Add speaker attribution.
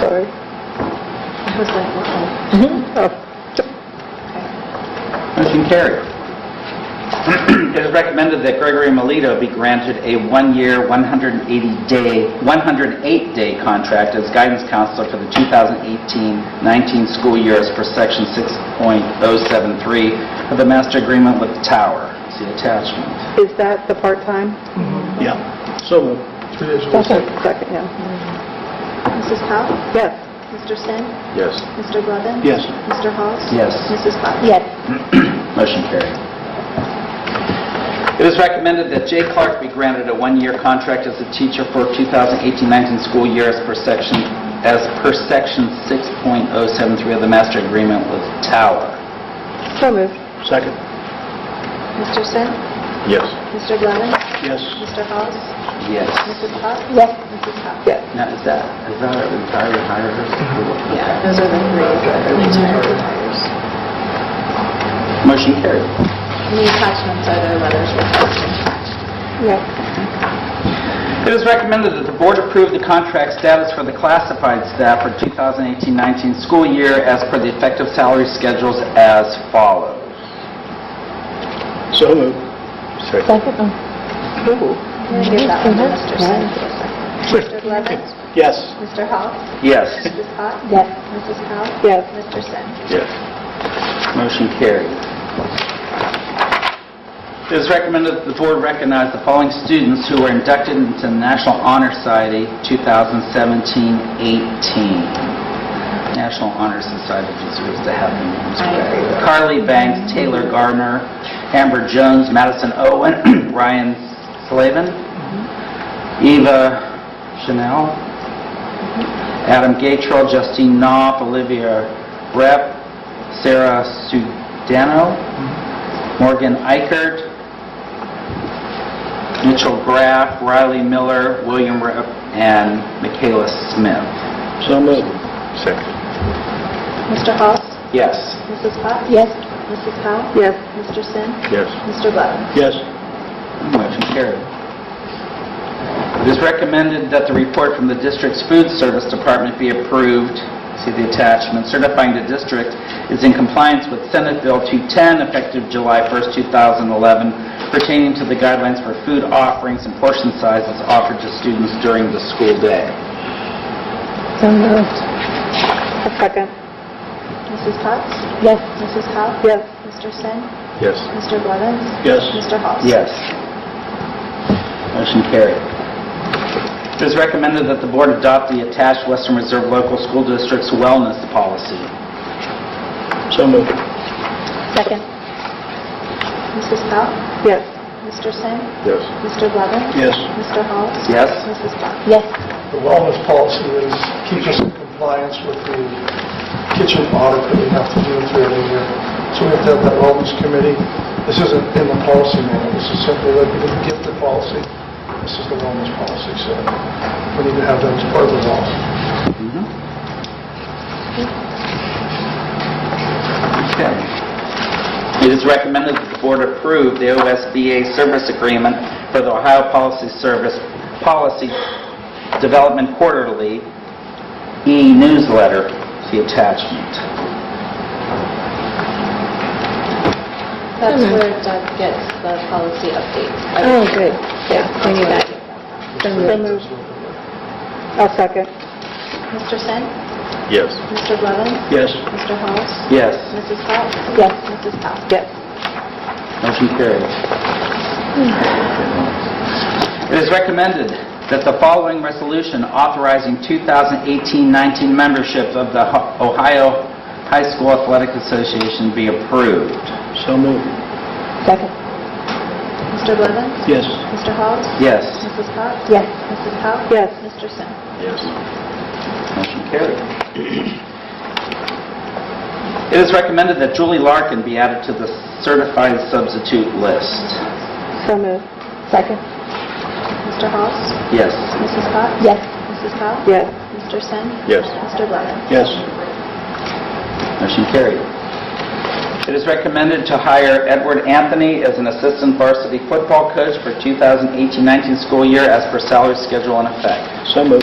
Speaker 1: sorry.
Speaker 2: I was like, wow.
Speaker 1: Oh,
Speaker 3: Motion carried. It is recommended that Gregory Melito be granted a one-year, 180-day, 108-day contract as guidance counselor for the 2018-19 school year as per Section 6.073 of the master agreement with the tower. See attachment.
Speaker 1: Is that the part-time?
Speaker 4: Yeah. So moved.
Speaker 1: Second, yeah.
Speaker 2: Mrs. Powell?
Speaker 1: Yes.
Speaker 2: Mr. Sin?
Speaker 4: Yes.
Speaker 2: Mr. Levin?
Speaker 4: Yes.
Speaker 2: Mr. Halls?
Speaker 3: Yes.
Speaker 2: Mrs. Potts? Yes.
Speaker 3: Motion carried. It is recommended that Jay Clark be granted a one-year contract as a teacher for 2018-19 school year as per section, as per section 6.073 of the master agreement with Tower.
Speaker 1: So moved.
Speaker 4: Second.
Speaker 2: Mr. Sin?
Speaker 4: Yes.
Speaker 2: Mr. Levin?
Speaker 4: Yes.
Speaker 2: Mr. Halls?
Speaker 3: Yes.
Speaker 2: Mrs. Potts? Yes. Mrs. Powell?
Speaker 1: Yes.
Speaker 3: Now, is that, is that an entire hire?
Speaker 2: Yeah, those are the three.
Speaker 3: Motion carried.
Speaker 2: The attachments are the letters we're posting.
Speaker 1: Yes.
Speaker 3: It is recommended that the board approve the contract status for the classified staff for 2018-19 school year as per the effective salary schedules as follows.
Speaker 4: So moved. Second.
Speaker 2: I'm going to give that one to Mr. Sin for a second. Mr. Levin?
Speaker 4: Yes.
Speaker 2: Mr. Halls?
Speaker 3: Yes.
Speaker 2: Mrs. Potts?
Speaker 1: Yes.
Speaker 2: Mrs. Powell?
Speaker 1: Yes.
Speaker 2: Mr. Sin?
Speaker 4: Yes.
Speaker 3: Motion carried. It is recommended that the board recognize the following students who were inducted into the National Honor Society 2017-18. National Honor Society deserves to have their names
Speaker 2: I agree with
Speaker 3: read. Carly Banks, Taylor Gardner, Amber Jones, Madison Owen, Ryan Slavin,
Speaker 2: Mm-hmm.
Speaker 3: Eva Chanel, Adam Gatrell, Justine Knopf, Olivia Rep, Sarah Sudano, Morgan Eichert, Mitchell Graff, Riley Miller, William Rep, and Michaela Smith.
Speaker 4: So moved. Second.
Speaker 2: Mr. Halls?
Speaker 3: Yes.
Speaker 2: Mrs. Potts? Yes. Mrs. Powell?
Speaker 1: Yes.
Speaker 2: Mr. Sin?
Speaker 4: Yes.
Speaker 2: Mr. Levin?
Speaker 4: Yes.
Speaker 3: Motion carried. It is recommended that the report from the district's food service department be approved, see the attachment, certifying the district is in compliance with Senate Bill 210, effective July 1st, 2011, pertaining to the guidelines for food offerings and portion sizes offered to students during the school day.
Speaker 1: So moved. A second.
Speaker 2: Mrs. Potts?
Speaker 1: Yes.
Speaker 2: Mrs. Powell?
Speaker 1: Yes.
Speaker 2: Mr. Sin?
Speaker 4: Yes.
Speaker 2: Mr. Blevins?
Speaker 4: Yes.
Speaker 2: Mr. Halls?
Speaker 3: Yes. Motion carried. It is recommended that the board adopt the attached Western Reserve Local School District's wellness policy.
Speaker 4: So moved.
Speaker 1: Second.
Speaker 2: Mrs. Powell?
Speaker 1: Yes.
Speaker 2: Mr. Sin?
Speaker 4: Yes.
Speaker 2: Mr. Blevins?
Speaker 4: Yes.
Speaker 2: Mr. Halls?
Speaker 3: Yes?
Speaker 2: Mrs. Potts?
Speaker 1: Yes.
Speaker 5: The wellness policy is, keeps us in compliance with the kitchen audit that we have to do through every year. So we have to have that wellness committee. This isn't in the policy manual, this is simply like, we didn't get the policy, this is the wellness policy, so we need to have that as part of the law.
Speaker 3: Mm-hmm. Okay. It is recommended that the board approve the OSBA service agreement for the Ohio Policy Service Policy Development Quarterly e-newsletter, the attachment.
Speaker 2: That's where Doug gets the policy updates.
Speaker 1: Oh, good. Yeah, I knew that. So moved. A second.
Speaker 2: Mr. Sin?
Speaker 4: Yes.
Speaker 2: Mr. Blevins?
Speaker 4: Yes.
Speaker 2: Mr. Halls?
Speaker 3: Yes,
Speaker 2: Mrs. Potts?
Speaker 1: Yes.
Speaker 2: Mrs. Powell?
Speaker 1: Yes.
Speaker 3: motion carried. It is recommended that the following resolution authorizing 2018-19 membership of the Ho- Ohio High School Athletic Association be approved.
Speaker 4: So moved.
Speaker 1: Second.
Speaker 2: Mr. Blevins?
Speaker 4: Yes.
Speaker 2: Mr. Halls?
Speaker 3: Yes.
Speaker 2: Mrs. Potts?
Speaker 1: Yes.
Speaker 2: Mrs. Powell?
Speaker 1: Yes.
Speaker 2: Mr. Sin?
Speaker 4: Yes.
Speaker 3: Motion carried. It is recommended that Julie Larkin be added to the certified substitute list.
Speaker 1: So moved. Second.
Speaker 2: Mr. Halls?
Speaker 3: Yes.
Speaker 2: Mrs. Potts?
Speaker 1: Yes.
Speaker 2: Mrs. Powell?
Speaker 1: Yes.
Speaker 2: Mr. Sin?
Speaker 4: Yes.
Speaker 2: Mr. Blevins?
Speaker 4: Yes.
Speaker 3: Motion carried. It is recommended to hire Edward Anthony as an assistant varsity football coach for 2018-19 school year as per salary schedule in effect.
Speaker 4: So moved.